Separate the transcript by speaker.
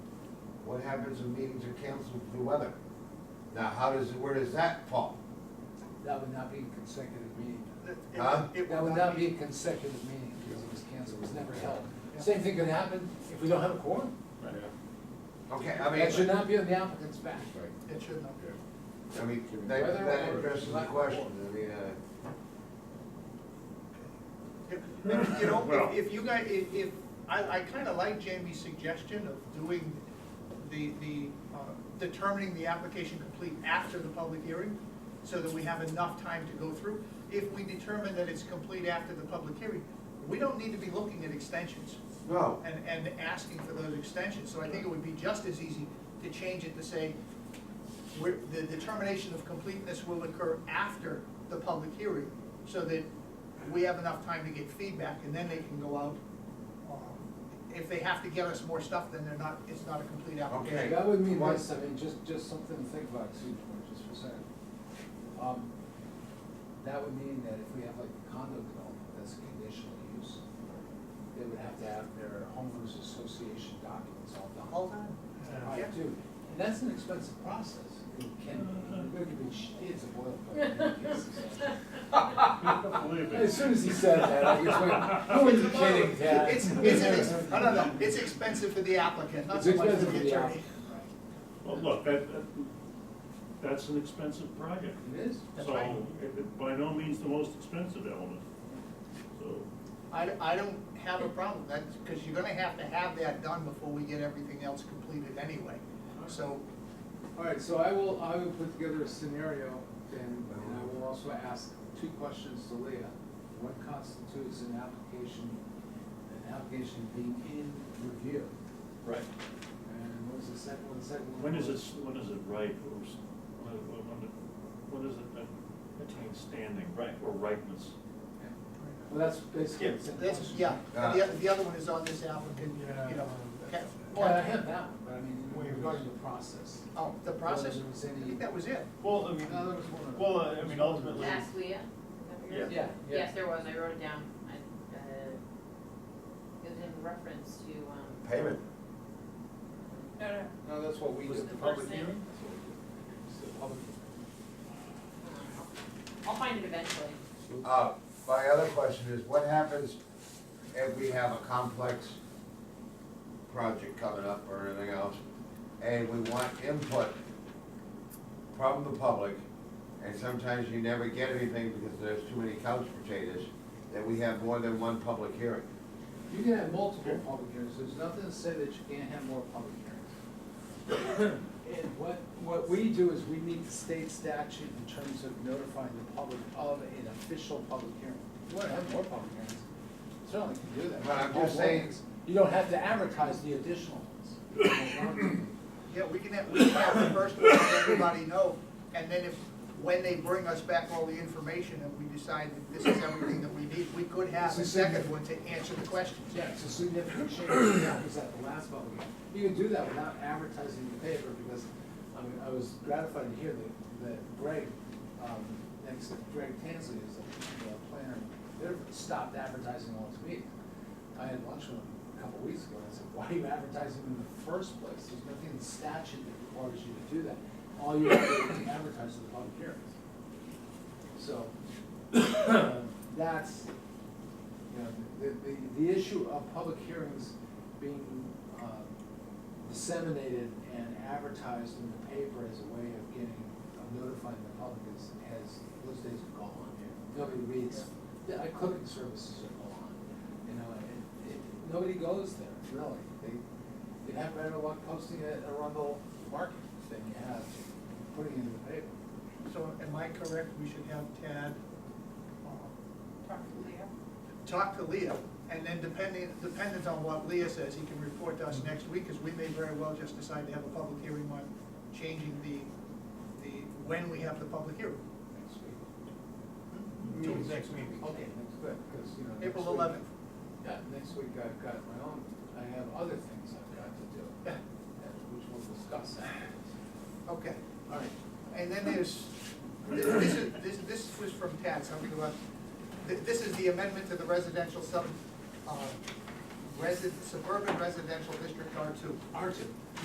Speaker 1: what happens when meetings are canceled due to weather? Now, how does, where does that fall?
Speaker 2: That would not be a consecutive meeting.
Speaker 3: It- it-
Speaker 1: Huh?
Speaker 3: it
Speaker 2: That would not be a consecutive meeting because it was canceled, it was never held. Same thing could happen if we don't have a quorum.
Speaker 4: Right.
Speaker 1: Okay, I
Speaker 2: That should
Speaker 1: mean,
Speaker 2: not be on the applicant's back.
Speaker 3: It should not.
Speaker 1: I mean, that, that addresses the question, I mean, uh.
Speaker 3: If- if, You know,
Speaker 4: Well-
Speaker 3: if- if you guys, if, if, I, I kinda like Jamie's suggestion of doing the, the, uh, determining the application complete after the public hearing, so that we have enough time to go through. If we determine that it's complete after the public hearing, we don't need to be looking at extensions
Speaker 1: No,
Speaker 3: and, and asking for those extensions. So I think it would be just as easy to change it to say, we're, the determination of completeness will occur after the public hearing, so that we have enough time to get feedback, and then they can go out. um, If they have to get us more stuff, then they're not, it's not a complete
Speaker 1: Okay.
Speaker 3: application.
Speaker 2: That would mean
Speaker 1: Why-
Speaker 2: this, I mean, just, just something to think about, Sue, for just for a second. Um, That would mean that if we have like a condo development that's conditional use, they would have to have their homeowners association documents all done.
Speaker 3: Hold on.
Speaker 2: I do, and that's an expensive process, it can, be. it could be, sh- it's a boilerplate in many cases.
Speaker 4: Believe
Speaker 2: As
Speaker 4: it.
Speaker 2: soon as he said that, I was like, who are you kidding, Dad?
Speaker 3: It's, it's, an ex- no, no, no, it's expensive for the applicant, not
Speaker 2: It's
Speaker 3: so much for
Speaker 2: expensive
Speaker 3: the
Speaker 2: for the
Speaker 3: attorney.
Speaker 2: applicant.
Speaker 4: Well, look, that, that, that's an expensive project.
Speaker 2: It is?
Speaker 3: That's
Speaker 4: So,
Speaker 3: right.
Speaker 4: it- it by no means the most expensive element, so.
Speaker 3: I, I don't have a problem, that's, because you're gonna have to have that done before we get everything else completed anyway. So,
Speaker 5: All right, so I will, I will put together a scenario, and, and I will also ask two questions to Leah.
Speaker 2: What constitutes an application, an application being in review?
Speaker 4: Right.
Speaker 2: And what was the second one, the second one?
Speaker 4: When is it,
Speaker 2: was-
Speaker 4: when is it right, or, s- when, when- when, it- when does it a- attain standing, right, or ripeness?
Speaker 2: Well, that's basically.
Speaker 4: Yeah,
Speaker 2: the same
Speaker 3: that's,
Speaker 2: question.
Speaker 3: yeah, and the, oth- the other one is on this applicant, you know. ca-
Speaker 2: Well, I have that one, but I mean,
Speaker 5: Waivers.
Speaker 2: regarding the process.
Speaker 3: Oh, the process,
Speaker 2: Whether there was
Speaker 3: I
Speaker 2: any-
Speaker 3: think that was it.
Speaker 4: Well, I
Speaker 5: No,
Speaker 4: uh,
Speaker 5: there was one other.
Speaker 4: well, I mean, ultimately,
Speaker 6: Ask Leah?
Speaker 4: Yeah.
Speaker 2: Yeah, yeah.
Speaker 6: Yes, there was, I wrote it down, I, uh, it was in reference to, um.
Speaker 1: payment.
Speaker 6: No, no.
Speaker 5: No, that's what we
Speaker 6: Was
Speaker 5: did.
Speaker 6: it the first thing?
Speaker 5: That's what we did. It's the public hearing.
Speaker 6: I'll find it eventually.
Speaker 1: Uh, my other question is, what happens if we have a complex project coming up or anything else, and we want input from the public, and sometimes you never get anything because there's too many couch potatoes, that we have more than one public hearing?
Speaker 2: You can have multiple public hearings, there's nothing to say that you can't have more public hearings. And what, what we do is we meet the state statute in terms of notifying the public of an official public hearing. If you wanna have more public hearings, certainly can do that.
Speaker 1: But I'm just saying-
Speaker 2: You don't have to advertise the additional ones.
Speaker 3: Yeah, we can have, we can have the first one, let everybody know, and then if, when they bring us back all the information and we decide that this is everything that we need, we could have a second one to answer the questions.
Speaker 2: Yeah, it's a significant change, that happens at the last public hearing. You can do that without advertising the paper, because, I mean, I was gratified to hear that, that Greg, um, next, to Greg Tansley is a uh, planner, they've stopped advertising all this week. I had lunch with him a couple weeks ago, and I said, why are you advertising in the first place? There's nothing in statute that requires you to do that. All you have to do is advertise the public hearings. So, um, that's, you know, the, the, the issue of public hearings being, um, disseminated and advertised in the paper as a way of getting, of notifying the public is, has, those days are gone. Nobody reads, the uh, clipping services are gone, you know, and it, nobody goes there, really. They, you have better luck posting it at Arundel Market than you have putting it in the paper.
Speaker 3: So am I correct, we should have Tad, um,
Speaker 6: Talk to Leah.
Speaker 3: talk to Leah, and then depending, dependent on what Leah says, he can report to us next week, because we may very well just decide to have a public hearing on changing the, the, when we have the public hearing.
Speaker 2: Next week.
Speaker 3: Meeting's next week.
Speaker 2: Okay, that's good, because, you know. next
Speaker 3: April
Speaker 2: week-
Speaker 3: eleventh.
Speaker 2: Yeah, next week I've got my own, I have other things I've got to do,
Speaker 3: Yeah,
Speaker 2: and which we'll discuss afterwards.
Speaker 3: okay.
Speaker 2: All right,
Speaker 3: And then there's, this is, this, this was from Tad, something about, th- this is the amendment to the residential sub, uh, resi- suburban residential district R two.
Speaker 2: Archie.